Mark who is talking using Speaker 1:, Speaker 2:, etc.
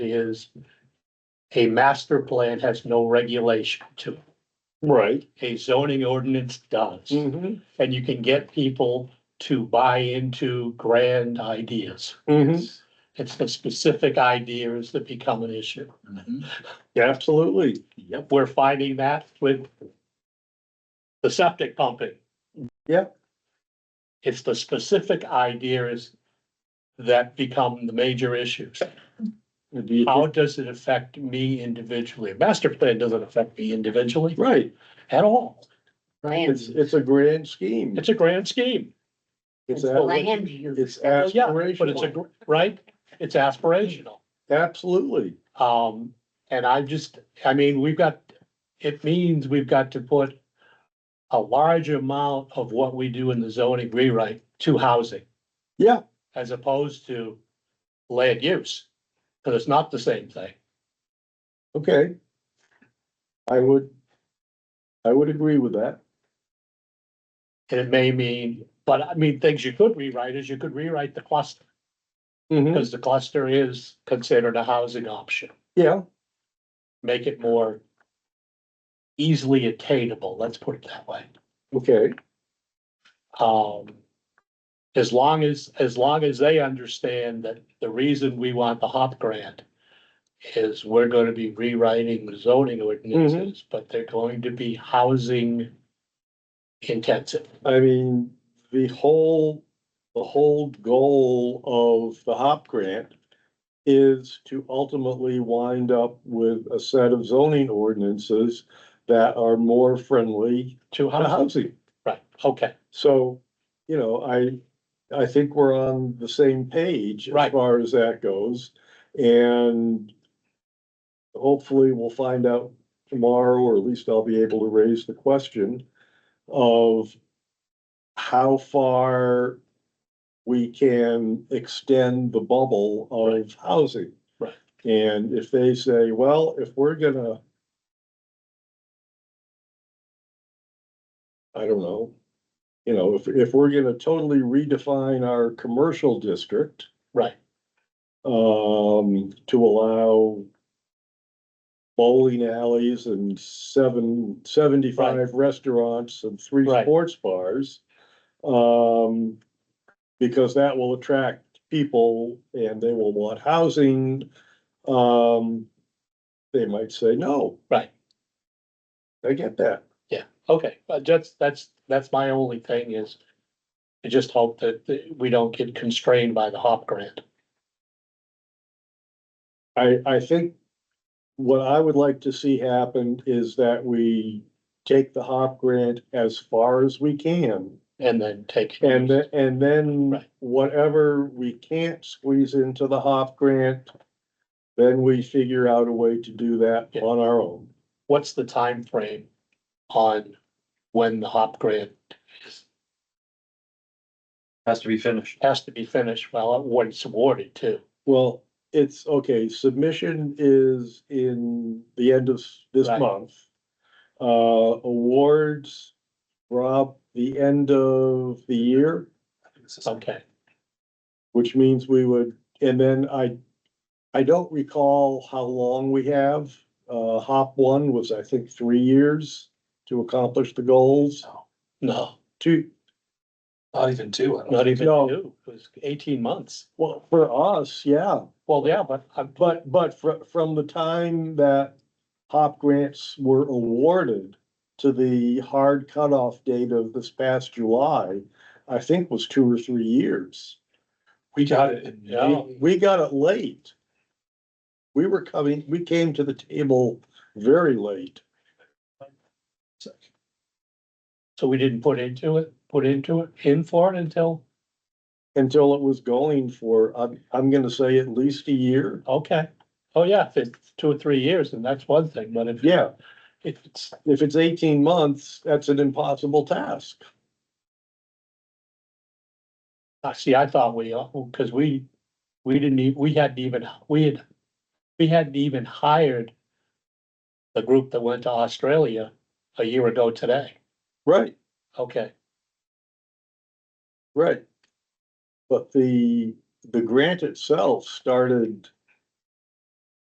Speaker 1: is a master plan has no regulation to, it.
Speaker 2: Right. Mm.
Speaker 1: a zoning ordinance does. And you can get people to buy into grand ideas. It's the specific ideas that become an issue.
Speaker 2: Mm-hmm. Absolutely.
Speaker 1: Yep. We're finding that with the septic pumping.
Speaker 2: Yep.
Speaker 1: It's the specific ideas that become the major issues.
Speaker 2: Do you
Speaker 1: How
Speaker 2: think-
Speaker 1: does it affect me individually? A Master plan doesn't affect me individually
Speaker 2: Right,
Speaker 1: at all.
Speaker 2: it's,
Speaker 3: Land,
Speaker 2: it's a grand scheme.
Speaker 1: It's a grand scheme,
Speaker 2: It's,
Speaker 3: the
Speaker 2: a-
Speaker 3: land use.
Speaker 2: it's
Speaker 1: yeah, but it's a,
Speaker 2: aspirational,
Speaker 1: gr- right? It's aspirational.
Speaker 2: absolutely.
Speaker 1: Um, and I just, I mean, we've got, it means we've got to put a large amount of what we do in the zoning rewrite to housing.
Speaker 2: Yeah.
Speaker 1: As opposed to land use, because it's not the same thing.
Speaker 2: Okay. I would, I would agree with that.
Speaker 1: And it may mean, but I mean, things you could rewrite is you could rewrite the cluster, because the cluster is considered a housing option.
Speaker 2: Yeah,
Speaker 1: Make it more easily attainable, let's put it that way.
Speaker 2: okay,
Speaker 1: Um, as long as, as long as they understand that the reason we want the HOP grant is we're gonna be rewriting the zoning ordinances, but they're going to be housing intensive.
Speaker 2: I mean, the whole, the whole goal of the HOP grant is to ultimately wind up with a set of zoning ordinances that are more friendly
Speaker 1: To
Speaker 2: to
Speaker 1: housing,
Speaker 2: housing.
Speaker 1: right, okay,
Speaker 2: So, you know, I, I think we're on the same page as
Speaker 1: Right.
Speaker 2: far as that goes. And hopefully we'll find out tomorrow, or at least I'll be able to raise the question of how far we can extend the bubble of housing.
Speaker 1: Right.
Speaker 2: And if they say, well, if we're gonna I don't know. You know, if, if we're gonna totally redefine our commercial district,
Speaker 1: right,
Speaker 2: um, to allow bowling alleys and seven, seventy-five restaurants and three
Speaker 1: Right.
Speaker 2: sports bars. Um, because that will attract people and they will want housing. Um, they might say, no,
Speaker 1: right,
Speaker 2: I get that.
Speaker 1: okay, but that's, that's, that's my only thing is I just hope that, that we don't get constrained by the HOP grant.
Speaker 2: I, I think what I would like to see happen is that we take the HOP grant as far as we can.
Speaker 1: And then take.
Speaker 2: And, the- and then
Speaker 1: Right.
Speaker 2: whatever we can't squeeze into the HOP grant, then we figure out a way to do that
Speaker 1: Yeah.
Speaker 2: on our own.
Speaker 1: what's the time frame on when the HOP grant
Speaker 4: Has to be finished.
Speaker 1: has to be finished, well, uh, when it's awarded too?
Speaker 2: Well, it's, okay, submission is in the end of this
Speaker 1: Right.
Speaker 2: month. Uh, awards, Rob, the end of the year.
Speaker 1: Okay,
Speaker 2: which means we would, and then I, I don't recall how long we have. Uh, hop one was, I think, three years to accomplish the goals.
Speaker 1: no,
Speaker 2: Two,
Speaker 4: Not even two. I don't
Speaker 1: not even
Speaker 2: No.
Speaker 1: two, it was eighteen months.
Speaker 2: well, for us, yeah,
Speaker 1: Well, yeah, but I'm,
Speaker 2: but, but fr- from the time that hop grants were awarded to the hard cutoff date of this past July, I think was two or three years.
Speaker 4: think- We got it in
Speaker 1: Yeah.
Speaker 4: May.
Speaker 2: We- We got it late. We were coming, we came to the table very late.
Speaker 1: so we didn't put into it, put into it, in for it until,
Speaker 2: until it was going for, I'm, I'm gonna say at least a year.
Speaker 1: okay. Oh, yeah, if it's two or three years, then that's one thing, but if,
Speaker 2: Yeah,
Speaker 1: if it's,
Speaker 2: if it's eighteen months, that's an impossible task.
Speaker 1: I see, I thought we, uh, cause we, we didn't even, we hadn't even, we had, we hadn't even hired the group that went to Australia a year ago today.
Speaker 2: Right,
Speaker 1: Okay,
Speaker 2: right. But the, the grant itself started